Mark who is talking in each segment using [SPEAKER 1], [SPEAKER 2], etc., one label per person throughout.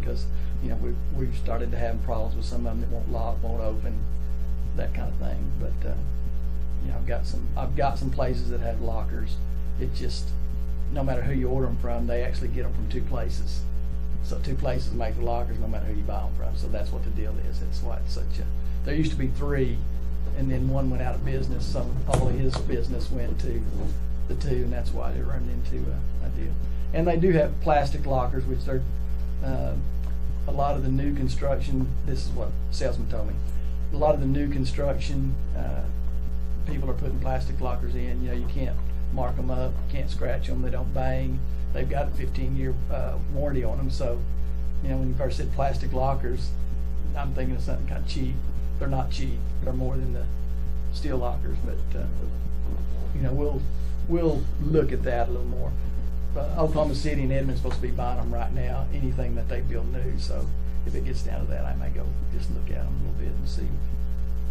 [SPEAKER 1] because, you know, we've, we've started to have problems with some of them that won't lock, won't open, that kind of thing. But, uh, you know, I've got some, I've got some places that have lockers. It just, no matter who you order them from, they actually get them from two places. So two places make the lockers, no matter who you buy them from. So that's what the deal is. It's why it's such a, there used to be three, and then one went out of business. Some, all of his business went to the two, and that's why they run into a, a deal. And they do have plastic lockers, which they're, uh, a lot of the new construction, this is what salesman told me. A lot of the new construction, uh, people are putting plastic lockers in, you know, you can't mark them up, you can't scratch them, they don't bang. They've got a fifteen-year, uh, warranty on them, so, you know, when you first said plastic lockers, I'm thinking of something kind of cheap. They're not cheap, they're more than the steel lockers, but, uh, you know, we'll, we'll look at that a little more. But Oklahoma City and Edmond's supposed to be buying them right now, anything that they build new, so if it gets down to that, I may go just look at them a little bit and see,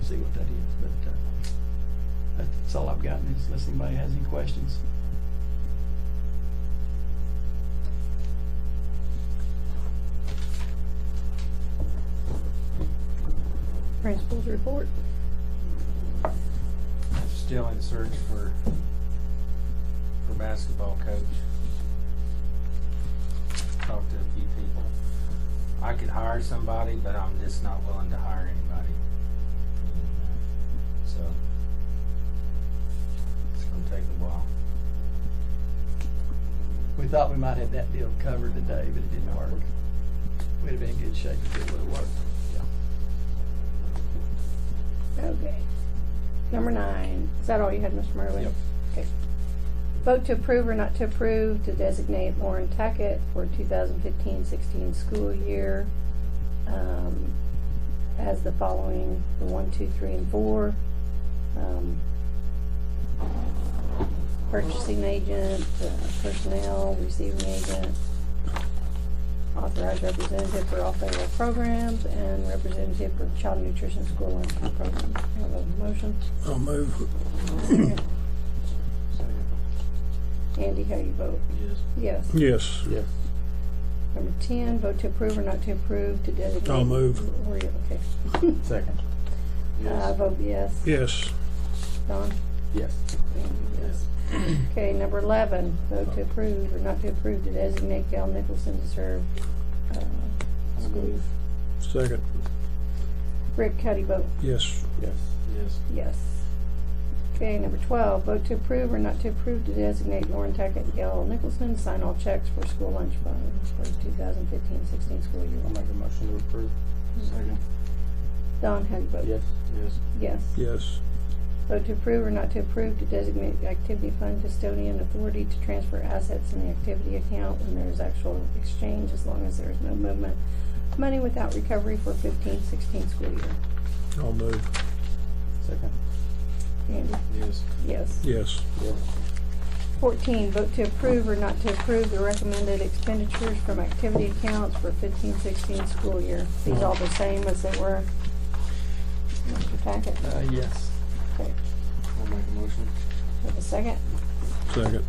[SPEAKER 1] see what that is, but, uh, that's all I've gotten, is unless anybody has any questions.
[SPEAKER 2] Principals report.
[SPEAKER 3] Still in search for, for basketball coach. Talked to a few people. I could hire somebody, but I'm just not willing to hire anybody. So, it's gonna take a while.
[SPEAKER 1] We thought we might have that deal covered today, but it didn't work. We'd have been in good shape if it would've worked.
[SPEAKER 2] Okay. Number nine. Is that all you had, Mr. Merwin?
[SPEAKER 1] Yep.
[SPEAKER 2] Okay. Vote to approve or not to approve to designate Lauren Tackett for 2015-16 school year um, as the following, the one, two, three, and four. Um, Purchasing agent, uh, personnel, receiving agent, authorized representative for all federal programs, and representative for child nutrition school lunch program. Have a motion?
[SPEAKER 4] I'll move.
[SPEAKER 2] Andy, how you vote?
[SPEAKER 1] Yes.
[SPEAKER 2] Yes.
[SPEAKER 4] Yes.
[SPEAKER 2] Number ten, vote to approve or not to approve to designate.
[SPEAKER 4] I'll move.
[SPEAKER 2] Were you- okay.
[SPEAKER 5] Second.
[SPEAKER 1] Uh,
[SPEAKER 2] I vote yes.
[SPEAKER 4] Yes.
[SPEAKER 2] Don?
[SPEAKER 5] Yes.
[SPEAKER 2] Andy, yes. Okay, number eleven, vote to approve or not to approve to designate Gail Nicholson to serve. uh, school.
[SPEAKER 4] Second.
[SPEAKER 2] Rick, how do you vote?
[SPEAKER 4] Yes.
[SPEAKER 5] Yes.
[SPEAKER 1] Yes.
[SPEAKER 2] Yes. Okay, number twelve, vote to approve or not to approve to designate Lauren Tackett and Gail Nicholson, to sign all checks for school lunch fund for 2015-16 school year.
[SPEAKER 5] I'll make a motion to approve.
[SPEAKER 1] Second.
[SPEAKER 2] Don, how do you vote?
[SPEAKER 5] Yes.
[SPEAKER 1] Yes.
[SPEAKER 2] Yes.
[SPEAKER 4] Yes.
[SPEAKER 2] Vote to approve or not to approve to designate the activity fund custodian authority to transfer assets in the activity account when there is actual exchange, as long as there is no movement. of Money without recovery for 15-16 school year.
[SPEAKER 4] I'll move.
[SPEAKER 5] Second.
[SPEAKER 2] Andy?
[SPEAKER 1] Yes.
[SPEAKER 2] Yes.
[SPEAKER 4] Yes.
[SPEAKER 5] Yes.
[SPEAKER 2] Fourteen, vote to approve or not to approve the recommended expenditures from activity accounts for 15-16 school year. These all the same as they were. in your Packet.
[SPEAKER 1] Uh, yes.
[SPEAKER 2] Okay,
[SPEAKER 5] I'll make a motion.
[SPEAKER 2] have a second?
[SPEAKER 4] Second.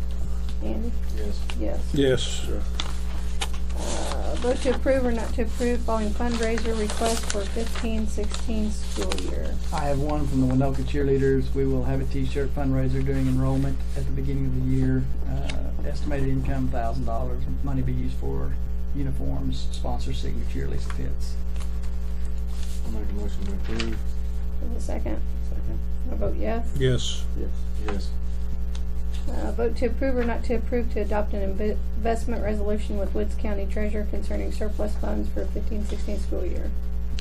[SPEAKER 2] Andy?
[SPEAKER 5] Yes.
[SPEAKER 2] Yes.
[SPEAKER 4] Yes.
[SPEAKER 5] Yes.
[SPEAKER 2] Uh, Vote to approve or not to approve following fundraiser request for 15-16 school year.
[SPEAKER 1] I have one from the Winoka cheerleaders. We will have a T-shirt fundraiser during enrollment at the beginning of the year. Uh, Estimated income thousand dollars. Money be used for uniforms, sponsor signature, Lisa Pitts.
[SPEAKER 5] I'll make a motion to approve.
[SPEAKER 2] Have a second?
[SPEAKER 5] Second.
[SPEAKER 2] I vote yes.
[SPEAKER 4] Yes.
[SPEAKER 5] Yes. Yes.
[SPEAKER 2] Uh, Vote to approve or not to approve to adopt an inve- investment resolution with Woods County Treasurer concerning surplus funds for 15-16 school year.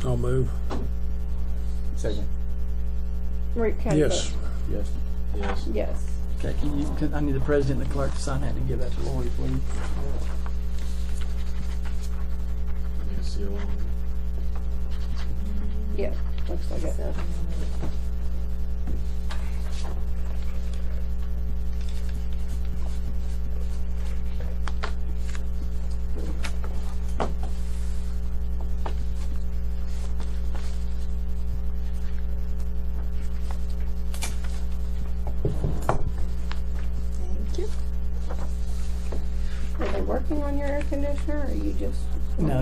[SPEAKER 4] I'll move.
[SPEAKER 5] Second.
[SPEAKER 2] Rick, how do you
[SPEAKER 4] Yes.
[SPEAKER 2] vote?
[SPEAKER 5] Yes. Yes.
[SPEAKER 2] Yes.
[SPEAKER 1] Okay, can you, can- I need the president and the clerk to sign that and give that to Lori, please.
[SPEAKER 5] Yes.
[SPEAKER 2] Yeah, looks like it. Thank you. Are they working on your air conditioner, or you just
[SPEAKER 1] No,